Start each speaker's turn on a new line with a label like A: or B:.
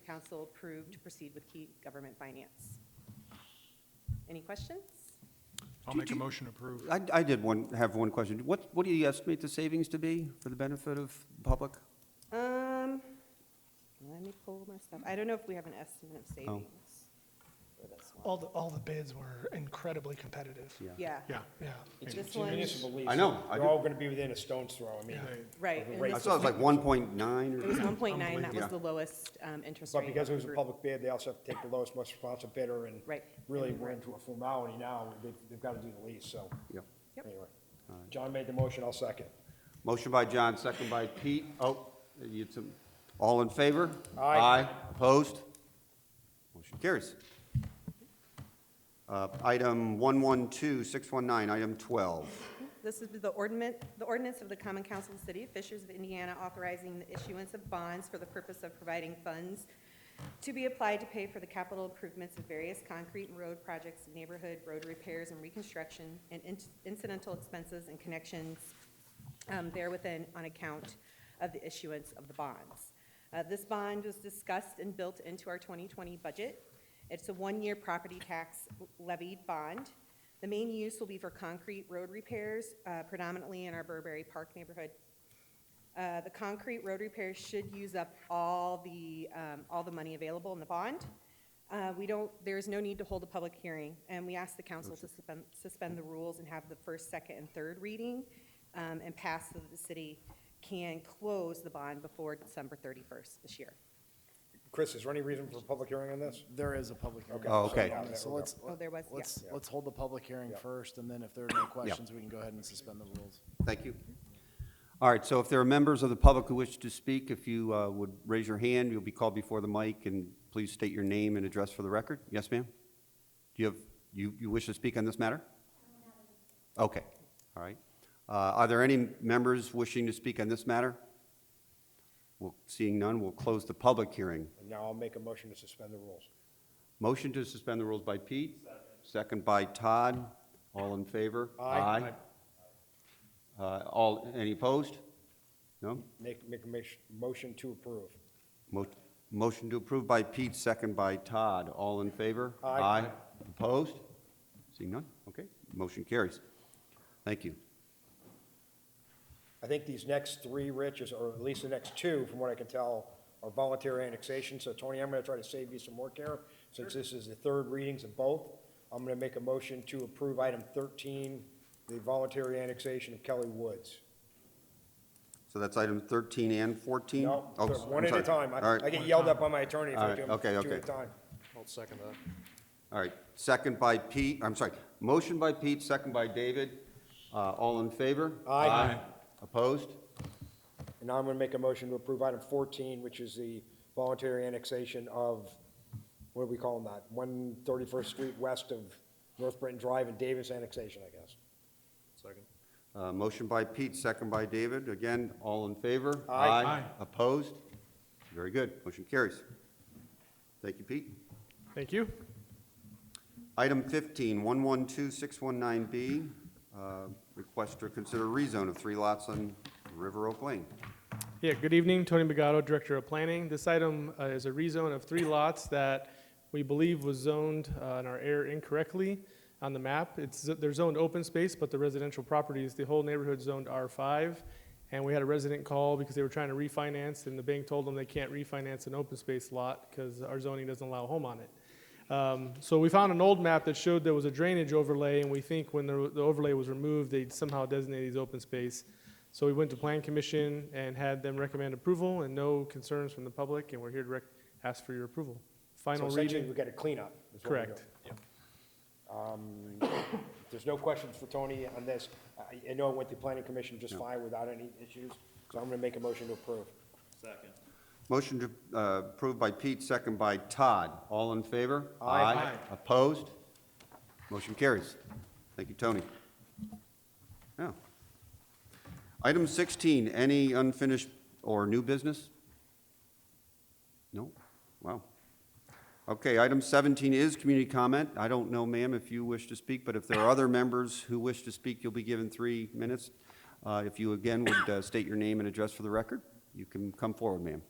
A: council approved to proceed with key government finance. Any questions?
B: I'll
C: Do- Uh,
B: make a
C: do-
B: motion to approve.
C: I, I did one, have one question. What, what do you estimate the savings to be for the benefit of the public?
A: Um, let me pull my stuff. I don't know if we have an estimate
C: Oh.
A: of savings for this one.
D: All the, all the bids were incredibly competitive.
A: Yeah.
B: Yeah.
D: Yeah.
E: It's
A: This
E: it's
A: one-
E: municipal lease.
C: I know, I
E: They're
C: do.
E: all gonna be within a stone's throw, I mean.
A: Right. and
E: Right.
C: I
A: this
C: saw it was like one point nine
A: It was
C: or,
A: one point nine, that was
C: Yeah.
A: the lowest, um, interest rate.
E: But because it was a
A: group.
E: public bid, they also have to take the lowest, most responsive bidder, and
A: Right.
E: really, we're into a formality now, they've, they've gotta do the lease, so.
C: yeah.
A: Yep.
E: Anyway, John made the motion, I'll second.
C: Motion by John, second by Pete. Oh, you had some, all in favor?
E: Aye.
C: Opposed? Motion carries. Uh, item one one two, six one nine, item twelve.
A: This is the ordinance, the ordinance of the Common Council of the City of Fishers of Indiana authorizing the issuance of bonds for the purpose of providing funds to be applied to pay for the capital improvements of various concrete and road projects, neighborhood road repairs and reconstruction, and in- incidental expenses and connections um, therewithin on account of the issuance of the bonds. Uh, This bond was discussed and built into our 2020 budget. It's a one-year property tax levied bond. The main use will be for concrete road repairs, uh, predominantly in our Burberry Park neighborhood. Uh, The concrete road repairs should use up all the, um, all the money available in the bond. Uh, We don't, there is no need to hold a public hearing, and we ask the council to suspend, suspend the rules and have the first, second, and third reading um, and pass so that the city can close the bond before December 31st this year.
E: Chris, is there any reason for a public hearing on this?
F: There is a public hearing.
E: Okay.
C: Oh, okay.
E: Yeah,
F: So
E: we're
F: let's,
A: Oh, there was, yeah.
F: let's, let's hold the public hearing
E: Yeah.
F: first, and then if there are no questions, we can go ahead and suspend the rules.
C: Thank you. All right, so if there are members of the public who wish to speak, if you uh, would raise your hand, you'll be called before the mic, and please state your name and address for the record. Yes, ma'am? Do you have, you, you wish to speak on this matter? Okay, all right. Uh, Are there any members wishing to speak on this matter? Well, seeing none, we'll close the public hearing.
E: And now I'll make a motion to suspend the rules.
C: Motion to suspend the rules by Pete, second by Todd. All in favor?
E: Aye.
C: Aye. Uh, All, any opposed? No?
E: Make, make a mach- motion to approve.
C: Mo- Motion to approve by Pete, second by Todd. All in favor?
E: Aye.
C: Opposed? Seeing none? Okay, motion carries. Thank you.
E: I think these next three, Rich, is- or at least the next two, from what I can tell, are voluntary annexation. So Tony, I'm going to try to save you some work here, since this is the third readings of both. I'm going to make a motion to approve item 13, the voluntary annexation of Kelly Woods.
C: So that's item 13 and 14?
E: No,
C: Oh,
E: they're
C: I'm
E: one at
C: sorry.
E: a time.
C: All
E: I-
C: right.
E: I get yelled at by my attorney if
C: All
E: I
C: right,
E: do
C: okay,
E: them two
C: okay.
E: at a time.
G: I'll second that.
C: All right, second by Pete, I'm sorry, motion by Pete, second by David. Uh, All in favor?
E: Aye. Aye.
C: Opposed?
E: And now I'm going to make a motion to approve item 14, which is the voluntary annexation of, what do we call them that? 131st Street west of North Britton Drive and Davis annexation, I guess.
G: Second.
C: Uh, Motion by Pete, second by David. Again, all in favor?
E: Aye.
B: Aye.
C: Opposed? Very good, motion carries. Thank you, Pete.
B: Thank you.
C: Item 15, 112619B, uh, request to consider rezone of three lots on River Oak Lane.
H: Yeah, good evening, Tony Bagato, Director of Planning. This item uh, is a rezone of three lots that we believe was zoned uh, in our area incorrectly on the map. It's, they're zoned open space, but the residential properties, the whole neighborhood zoned R5. And we had a resident call because they were trying to refinance, and the bank told them they can't refinance an open space lot because our zoning doesn't allow a home on it. Um, So we found an old map that showed there was a drainage overlay, and we think when the the overlay was removed, they somehow designated these open space. So we went to Plan Commission and had them recommend approval and no concerns from the public, and we're here to rec- ask for your approval.
E: So
H: Final
E: essentially,
H: reading,
E: we've got a cleanup. is what we're
H: correct.
E: doing. If There's no questions for Tony on this. I- I know it went to planning commission just fine without any issues, so I'm going to make a motion to approve.
C: Motion to, uh, approved by Pete, second by Todd. All in favor?
E: Aye.
C: Opposed? Motion carries. Thank you, Tony. Now, item 16, any unfinished or new business? No? Wow. Okay, item 17 is community comment. I don't know, ma'am, if you wish to speak, but if there are other members who wish to speak, you'll be given three minutes. Uh, If you again would uh, state your name and address for the record, you can come forward, ma'am.